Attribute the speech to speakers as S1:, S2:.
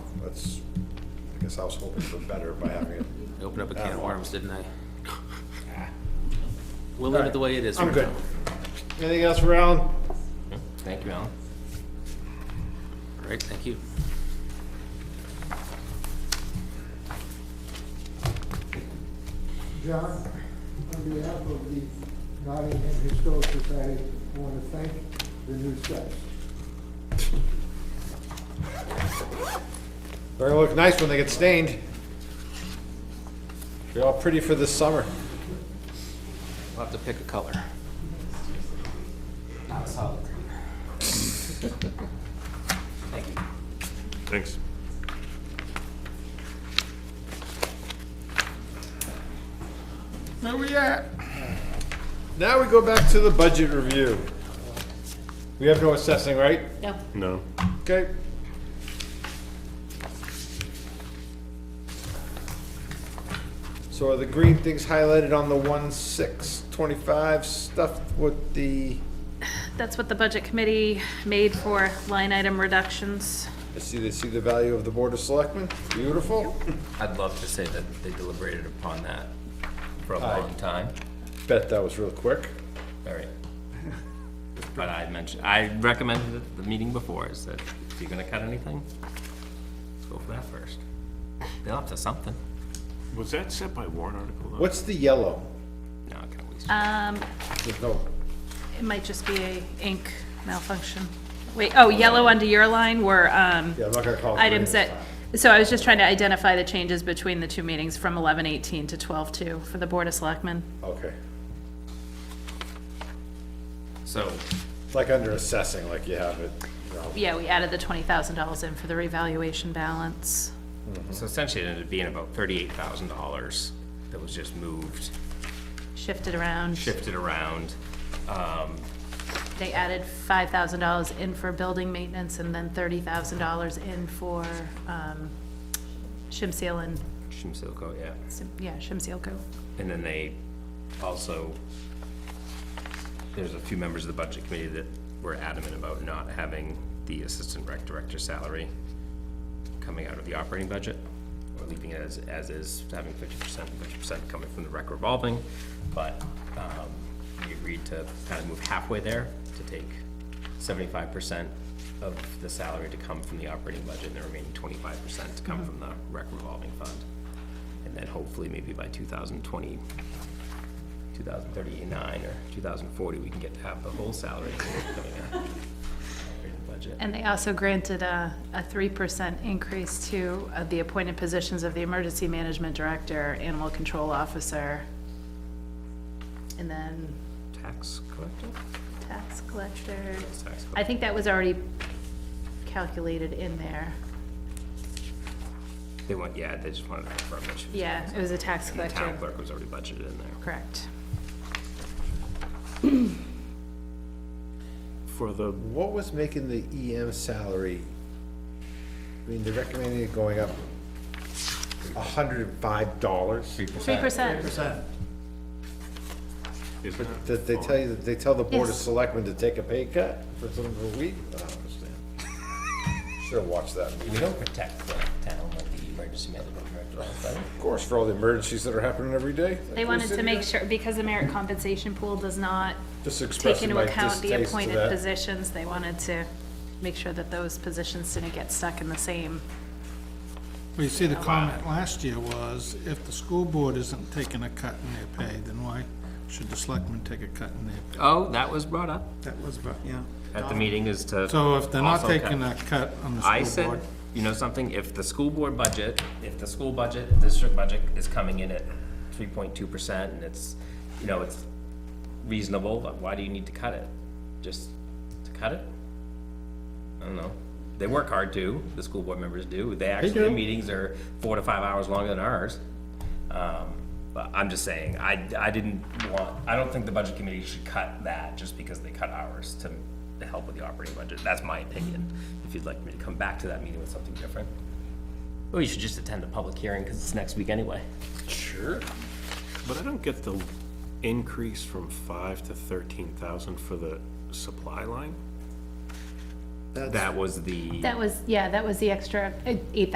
S1: that's, I guess I was hoping for better by having it.
S2: I opened up a
S1: Oh,
S2: can of worms, didn't I? We'll leave it the way it is.
S1: Ah. I'm
S2: right
S1: good.
S2: now.
S1: Anything else for Alan?
S3: Thank you, Alan.
S2: All right, thank you.
S4: John, on behalf of the Nottingham Historical Society, I want to thank the new staff.
S1: They're gonna look nice when they get stained. They're all pretty for this summer.
S2: We'll have to pick a color. Not a solid green. Thank you.
S5: Thanks.
S1: Where we at? Now we go back to the budget review. We have no assessing, right?
S6: No,
S5: No.
S1: Okay. So are the green things highlighted on the one six twenty-five stuffed with the,
S6: that's what the budget committee made for line item reductions.
S1: I see, they see the value of the Board of Selectmen? Beautiful.
S3: I'd love to say that they deliberated upon that for a
S1: Aye.
S3: long time.
S1: Bet that was real quick.
S3: All right. But I mentioned, I recommended it the meeting before, is that if you're gonna cut anything, go for that first. They'll have to something.
S5: Was that set by warrant article? though?
S1: What's the yellow?
S3: No, I can always,
S6: Um,
S1: There's no,
S6: it might just be a ink malfunction. Wait, oh, yellow under your line were, um,
S1: yeah, I'm not gonna call it. green
S6: items
S1: this
S6: that,
S1: time.
S6: so I was just trying to identify the changes between the two meetings from eleven eighteen to twelve two for the Board of Selectmen.
S1: Okay.
S3: so,
S1: It's like under assessing, like you have it, you know.
S6: Yeah, we added the twenty thousand dollars in for the revaluation balance.
S3: so essentially it ended up being about thirty-eight thousand dollars that was just moved,
S6: Shifted around.
S3: shifted around. Um,
S6: They added five thousand dollars in for building maintenance and then thirty thousand dollars in for, um, shim seal and,
S3: Shimsilco, oh, yeah.
S6: sim- yeah, shim seal coat.
S3: And then they also, there's a few members of the budget committee that were adamant about not having the assistant rec director salary coming out of the operating budget, or leaving it as, as is, having fifty percent, fifty percent coming from the rec revolving, but, um, we agreed to kind of move halfway there, to take seventy-five percent of the salary to come from the operating budget, and the remaining twenty-five percent to come from the rec revolving fund. And then hopefully, maybe by 2020, 2039 or 2040, we can get to have the whole salary coming out in the budget.
S6: And they also granted a, a three percent increase to uh, the appointed positions of the emergency management director, animal control officer, and then
S3: Tax collector?
S6: tax collector.
S3: Tax
S6: I
S3: collector.
S6: think that was already calculated in there.
S3: They want, yeah, they just wanted to confirm that she was-
S6: Yeah, it was a tax
S3: And the town
S6: collector,
S3: clerk was already budgeted in there.
S6: correct.
S5: For the,
S1: What was making the EM salary? I mean, they're recommending it going up hundred and five dollars,
S6: Three percent,
S5: is
S1: but
S5: that-
S1: that they tell you, that they tell the Board of
S6: Yes.
S1: Selectmen to take a pay cut for some of the week? I don't understand. Should've watched that meeting.
S3: We don't protect the town like the emergency management director.
S1: Of course, for all the emergencies that are happening every day.
S6: they wanted to make sure, because the merit compensation pool does not
S1: Just
S6: take
S1: expressing
S6: into
S1: my
S6: account the
S1: distaste to
S6: appointed
S1: that.
S6: positions, they wanted to make sure that those positions didn't get stuck in the same
S7: Well, you see, the comment last year was, if the school board isn't taking a cut in their pay, then why should the selectmen take a cut in their pay?
S3: Oh, that was brought up
S7: That was about, yeah.
S3: at the meeting is to.
S7: So if they're not
S3: also cut-
S7: taking a cut on
S3: I
S7: the school
S3: said,
S7: board,
S3: you know something, if the school board budget, if the school budget, district budget is coming in at three point two percent and it's, you know, it's reasonable, but why do you need to cut it? Just to cut it? I don't know. They work hard too, the school board members do. They actually, their
S1: do.
S3: meetings are four to five hours longer than ours. Um, But I'm just saying, I, I didn't want, I don't think the budget committee should cut that just because they cut ours to, to help with the operating budget. That's my opinion. If you'd like me to come back to that meeting with something different. Or you should just attend the public hearing because it's next week anyway.
S1: Sure.
S5: but I don't get the increase from five to thirteen thousand for the supply line?
S3: That was the.
S6: That was, yeah, that was the extra eight